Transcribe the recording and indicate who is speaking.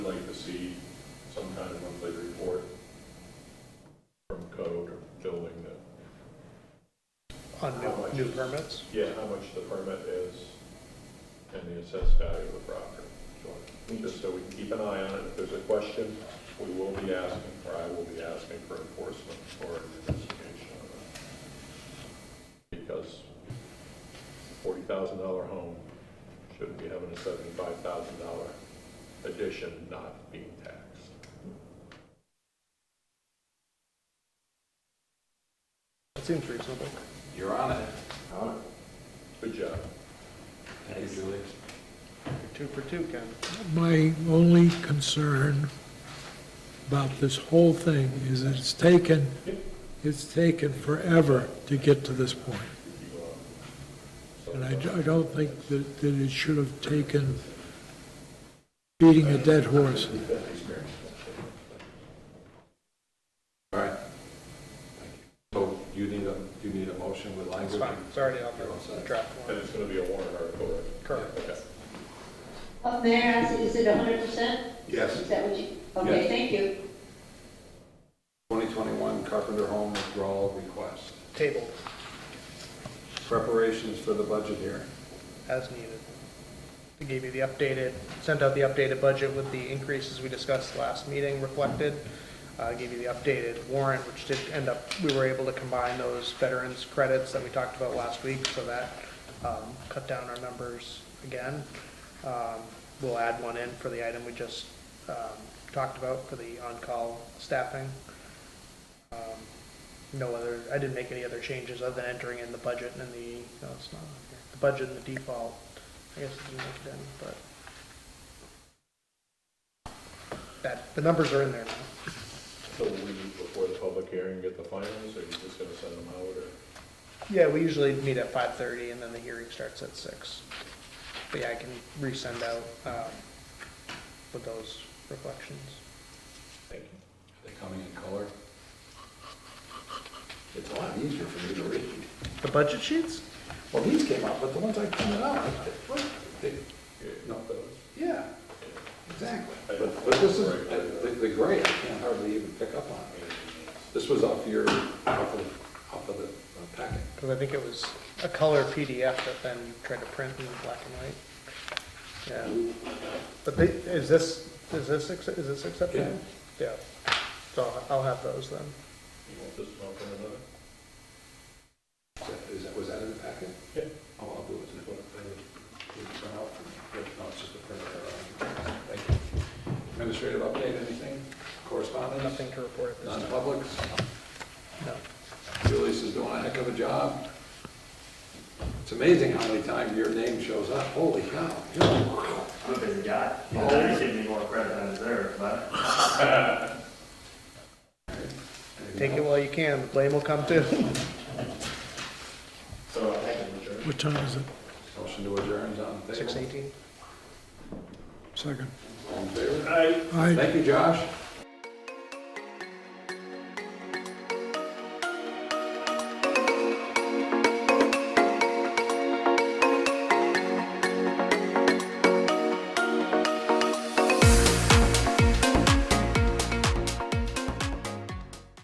Speaker 1: on new, new permits?
Speaker 2: Yeah, how much the permit is and the assessed value of the property. Just so we can keep an eye on it. If there's a question, we will be asking, or I will be asking for enforcement or an investigation on it. Because forty thousand dollar home shouldn't be having a seventy-five thousand dollar addition not being taxed.
Speaker 1: That seems reasonable.
Speaker 3: You're on it.
Speaker 2: Good job.
Speaker 3: Thank you, Julie.
Speaker 1: Two for two, Ken.
Speaker 4: My only concern about this whole thing is that it's taken, it's taken forever to get to this point. And I I don't think that that it should have taken beating a dead horse.
Speaker 3: All right. So you need a, you need a motion with language?
Speaker 1: It's fine, it's already on
Speaker 3: You're all
Speaker 1: the
Speaker 3: set.
Speaker 1: draft
Speaker 2: And
Speaker 1: one.
Speaker 2: it's gonna be a warrant article, right?
Speaker 1: Correct.
Speaker 2: Okay.
Speaker 5: Uh, Mayor, I see- is it hundred percent?
Speaker 3: Yes.
Speaker 5: Is that what you, okay,
Speaker 3: Yes.
Speaker 5: thank you.
Speaker 3: 2021 Carpenter Home withdrawal request.
Speaker 1: Table,
Speaker 3: Preparations for the budget hearing.
Speaker 1: as needed. They gave you the updated, sent out the updated budget with the increases we discussed last meeting reflected. Uh, gave you the updated warrant, which did end up, we were able to combine those veterans credits that we talked about last week, so that, um, cut down our numbers again. Um, we'll add one in for the item we just, um, talked about for the on-call staffing. Um, no other, I didn't make any other changes other than entering in the budget and the, no, it's not, on here. the budget and the default. I guess it didn't make it in, but. That, the numbers are in there now.
Speaker 2: So will we, before the public hearing, get the finals, or are you just gonna send them out, or?
Speaker 1: Yeah, we usually meet at five thirty and then the hearing starts at six. But yeah, I can resend out, um, with those reflections.
Speaker 2: Thank you.
Speaker 3: Are they coming in color? It's a lot easier for me to read.
Speaker 1: The budget sheets?
Speaker 3: Well, these came out, but the ones I printed out, what? They-
Speaker 2: No, those.
Speaker 3: Yeah, exactly.
Speaker 2: I-
Speaker 3: But but this is, the- the gray, I can hardly even pick up on. This was off your, off of, off of the uh, packet.
Speaker 1: Cause I think it was a color PDF that then you tried to print in black and white. Yeah. But they, is this, is this, acce- is this acceptable? Yeah. So I'll have those then.
Speaker 2: You want this one from another?
Speaker 3: Is that- Is that, was that in the packet?
Speaker 2: Yeah.
Speaker 3: Oh, I'll do it. It's what I did. Didn't print out for me. No, it's just a printer error. Thank you. Administrative update, anything? Correspondence?
Speaker 1: Nothing to report at this time.
Speaker 3: Non-publics?
Speaker 1: No.
Speaker 3: Julius is doing a heck of a job. It's amazing how many times your name shows up. Holy cow. You're a
Speaker 6: I'm a busy guy. You know, I should be more credit than I deserve, but.
Speaker 1: Take it while you can. The blame will come too.
Speaker 6: So I think we
Speaker 4: What time is it?
Speaker 3: Motion to adjourn is on the table.
Speaker 1: Six eighteen.
Speaker 4: Second.
Speaker 3: All in favor?
Speaker 6: Aye.
Speaker 4: Aye.
Speaker 3: Thank you, Josh.